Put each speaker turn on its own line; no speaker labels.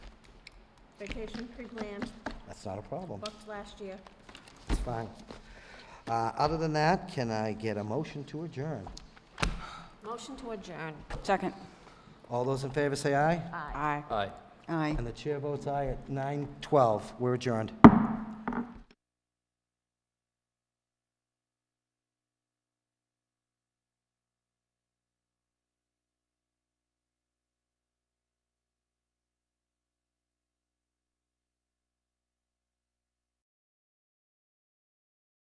vacation pre-planned,
That's not a problem.
booked last year.
It's fine. Uh, Other than that, can I get a motion to adjourn?
Motion to adjourn.
Second.
All those in favor say aye?
Aye.
Aye.
Aye.
And the chair votes aye at 9:12. We're adjourned.